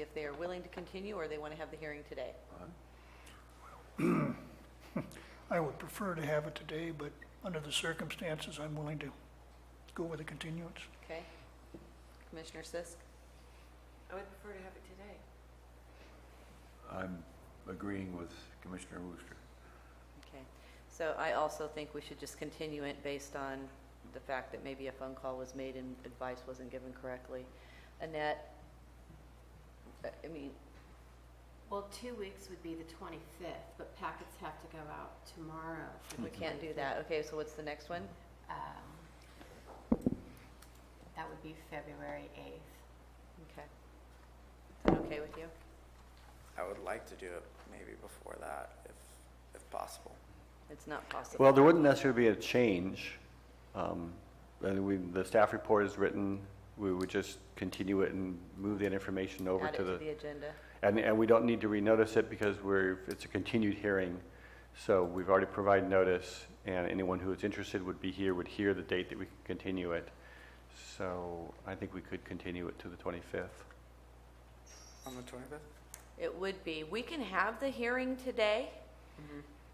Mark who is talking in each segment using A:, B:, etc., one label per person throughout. A: if they are willing to continue or they want to have the hearing today.
B: I would prefer to have it today, but under the circumstances, I'm willing to go with a continuance.
A: Okay? Commissioner Sisk?
C: I would prefer to have it today.
D: I'm agreeing with Commissioner Wooster.
A: Okay. So I also think we should just continue it based on the fact that maybe a phone call was made and advice wasn't given correctly. Annette, uh, I mean,
E: Well, two weeks would be the 25th, but packets have to go out tomorrow. for
A: we
F: Mm-hmm.
E: the
A: can't do that. Okay, so what's the next one?
E: 25th. Um, That would be February 8th.
A: Okay. Is that okay with you?
G: I would like to do it maybe before that, if, if possible.
A: It's not possible.
F: Well, there wouldn't necessarily be a change. Um, and we, the staff report is written, we would just continue it and move that information over
A: Add it
F: to
A: to
F: the,
A: the agenda.
F: and, and we don't need to renotice it because we're, it's a continued hearing. So we've already provided notice, and anyone who is interested would be here, would hear the date that we can continue it. So I think we could continue it to the 25th.
G: On the 25th?
A: It would be. We can have the hearing today.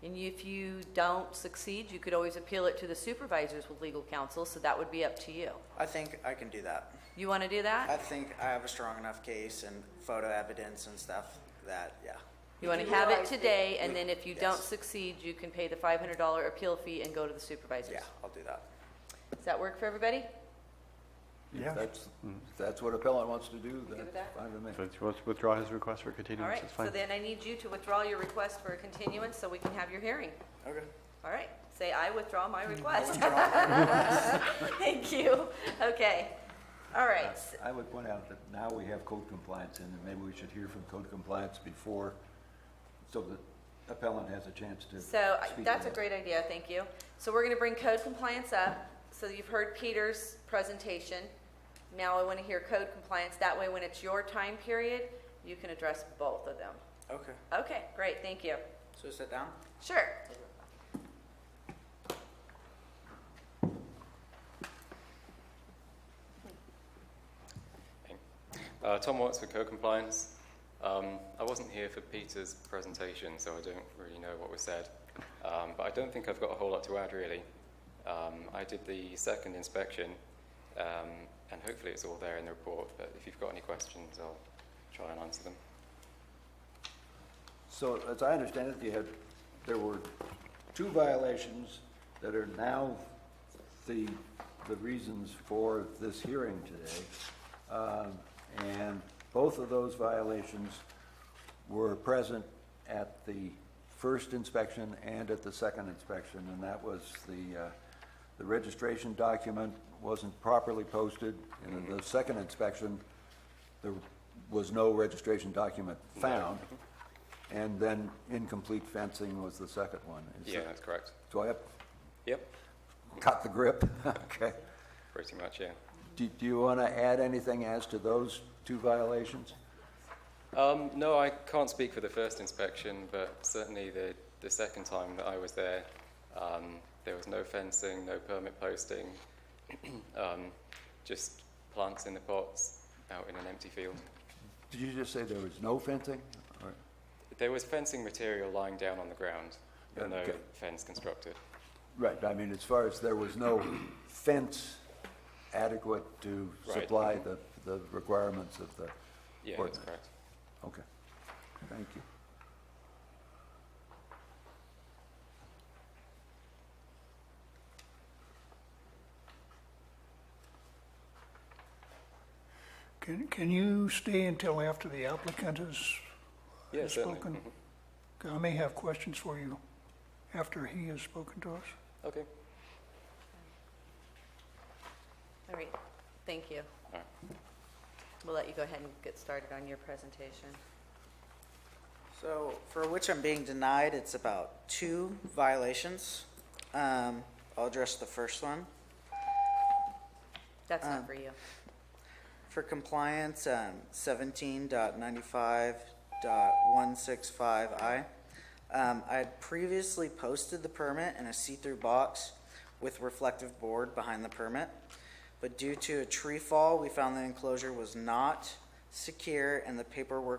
A: And if you don't succeed, you could always appeal it to the supervisors with legal counsel, so that would be up to you.
G: I think I can do that.
A: You want to do that?
G: I think I have a strong enough case and photo evidence and stuff that, yeah.
A: You want to have it
C: realize that-
A: today, and then if you don't
G: Yes.
A: succeed, you can pay the $500 appeal fee and go to the supervisors.
G: Yeah, I'll do that.
A: Does that work for everybody?
B: Yeah.
D: If that's, if that's what appellant wants to do,
A: with
D: that's
A: that?
D: fine with me.
F: So if he wants to withdraw his request for
A: All
F: continuance,
A: right,
F: it's fine.
A: so then I need you to withdraw your request for a continuance so we can have your hearing.
G: Okay.
A: All right, say, "I withdraw my request." Thank you. Okay. All right. s-
D: I would point out that now we have code compliance in, and maybe we should hear from code compliance before, so that appellant has a chance to speak.
A: So I- that's
D: on
A: a
D: it.
A: great idea, thank you. So we're going to bring code compliance up. So you've heard Peter's presentation. Now I want to hear code compliance. That way, when it's your time period, you can address both of them.
G: Okay.
A: Okay, great, thank you.
G: So sit down?
A: Sure.
H: Uh, Tom Watts for co-compliance. Um, I wasn't here for Peter's presentation, so I don't really know what was said. Um, but I don't think I've got a whole lot to add really. Um, I did the second inspection, um, and hopefully it's all there in the report. But if you've got any questions, I'll try and answer them.
D: So as I understand it, you had, there were two violations that are now the, the reasons for this hearing today. Um, And both of those violations were present at the first inspection and at the second inspection. And that was the, uh, the registration document wasn't properly posted. And in the second inspection, there was no registration document found. And then incomplete fencing was the second one. Is
H: Yeah,
D: that-
H: that's correct.
D: Do I have,
H: Yep,
D: cut the grip? Okay.
H: pretty much. Yeah.
D: Do, do you want to add anything as to those two violations?
H: Um, no, I can't speak for the first inspection, but certainly the, the second time that I was there, um, there was no fencing, no permit posting, um, just plants in the pots out in an empty field.
D: Did you just say there was no fencing? Or-
H: There was fencing material lying down on the ground, but no
D: Okay.
H: fence constructed.
D: Right, I mean, as far as there was no fence adequate to
H: Right.
D: supply the, the requirements of the
H: Yeah,
D: ordinance?
H: that's correct.
D: Okay, thank you.
B: Can, can you stay until after the applicant has
H: Yeah,
B: has
H: certainly.
B: spoken?
H: Mhm.
B: 'Cause I may have questions for you after he has spoken to us.
H: Okay.
A: All right, thank you.
H: All right.
A: We'll let you go ahead and get started on your presentation.
G: So for which I'm being denied, it's about two violations. Um, I'll address the first one.
A: That's not
G: Um,
A: for you.
G: For compliance, um, seventeen dot ninety-five dot one six five I. Um, I had previously posted the permit in a see-through box with reflective board behind the permit. But due to a tree fall, we found the enclosure was not secure, and the paperwork